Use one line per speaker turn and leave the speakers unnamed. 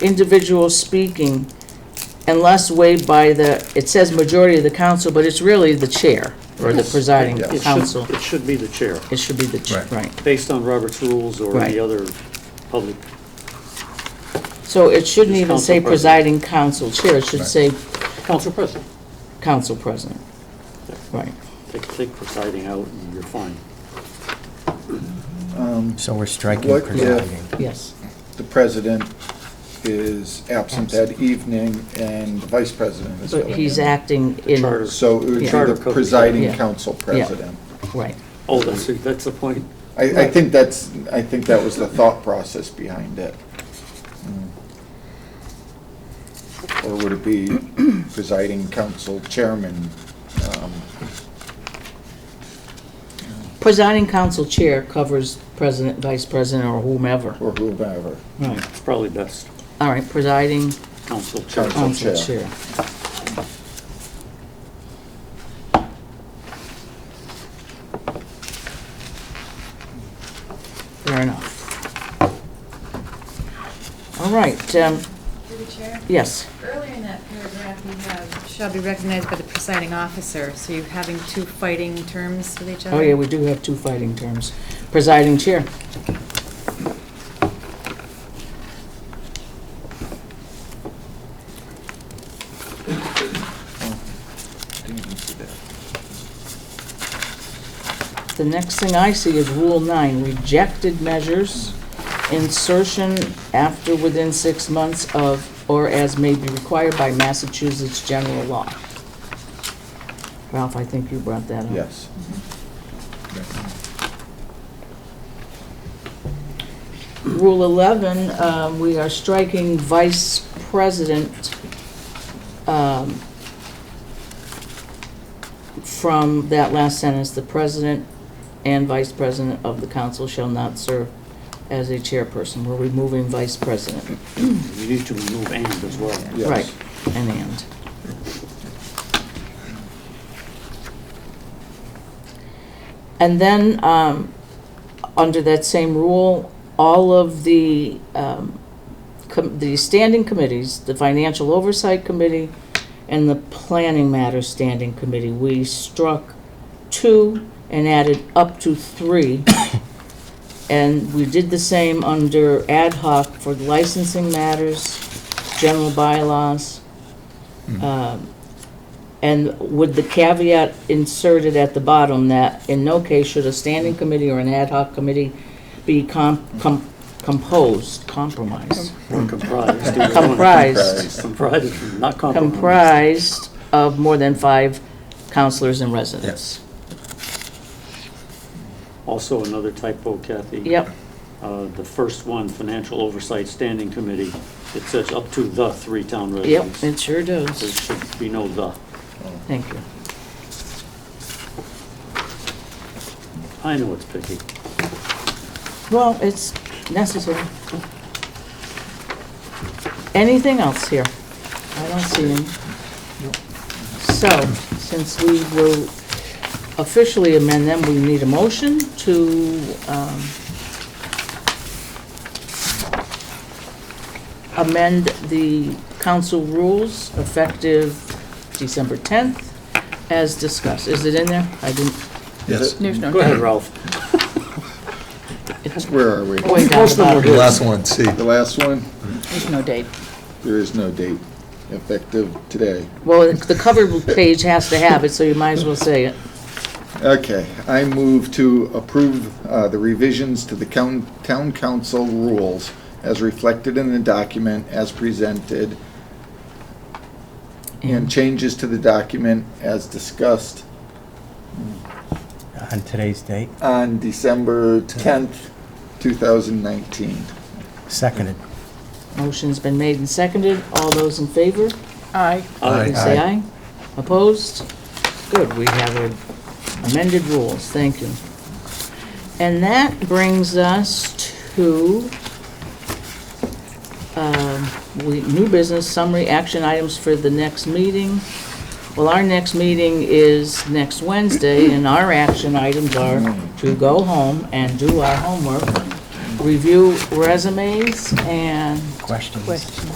individual speaking unless waived by the, it says majority of the council, but it's really the chair or the presiding
It
should-
council.
It should be the chair,
It should be the, chair,
Right.
right.
based on Robert's rules or
Right.
any other public,
So it shouldn't
Just
even say
council president.
presiding council chair, it should
Right.
say
council president.
council president.
Yeah.
Right.
Take, take presiding out and you're fine.
So we're striking
What if-
presiding.
Yes.
The president is absent that evening and the vice president is
But
filling
he's
in.
acting in,
Charter.
So it would be
Charter
the
code.
presiding
Yeah.
council president.
right.
Oh, that's, that's the point.
I, I think that's, I think that was the thought process behind it. Mm. Or would it be presiding council chairman? um,
Presiding council chair covers president, vice president, or whomever.
or whomever.
Right.
It's probably best,
All right, presiding
council chair.
Council.
council
chair.
chair. Fair enough. All right, um,
Through the chair,
yes,
earlier in that paragraph, you have, shall be recognized by the presiding officer, so you're having two fighting terms with each other?
oh yeah, we do have two fighting terms. Presiding chair,
Didn't even see that.
the next thing I see is rule nine, rejected measures, insertion after within six months of, or as may be required by Massachusetts general law. Ralph, I think you brought that up.
Yes.
Rule 11, um, we are striking vice president um, from that last sentence, "The president and vice president of the council shall not serve as a chairperson." We're removing vice president.
You need to remove and as well.
Yes.
Right, and and. And then, um, under that same rule, all of the, um, com- the standing committees, the Financial Oversight Committee and the Planning Matters Standing Committee, we struck two and added up to three. And we did the same under ad hoc for licensing matters, general bylaws. um, And with the caveat inserted at the bottom that in no case should a standing committee or an ad hoc committee be com- com- composed, compromised,
Or comprised. either one.
Comprised.
Comprised, not compromised.
comprised of more than five counselors and residents.
Also another typo, Kathy.
Yep,
Uh, The first one, Financial Oversight Standing Committee, it says up to the three town
yep,
residents.
it sure
There
does.
should be no the.
Thank you.
I know it's picky.
Well, it's necessary. Anything else here? I don't see any. So, since we will officially amend them, we need a motion to um, amend the council rules effective December 10th as discussed. Is it in there? I didn't,
Yes.
There's no.
Go ahead, Ralph.
it's
Where are we?
way down the bottom.
The last one, C.
The last one,
There's no date.
there is no date effective today.
Well, the cover page has to have it, so you might as well say it.
Okay, I move to approve uh, the revisions to the coun- town council rules as reflected in the document as presented and changes to the document as discussed
On today's date,
on December 10th, 2019.
seconded.
Motion's been made and seconded. All those in favor,
Aye.
please say aye. Opposed? Good, we have amended rules, thank you. And that brings us to, um, we, new business summary action items for the next meeting. Well, our next meeting is next Wednesday, and our action items are to go home and do our homework, review resumes, and
Questions?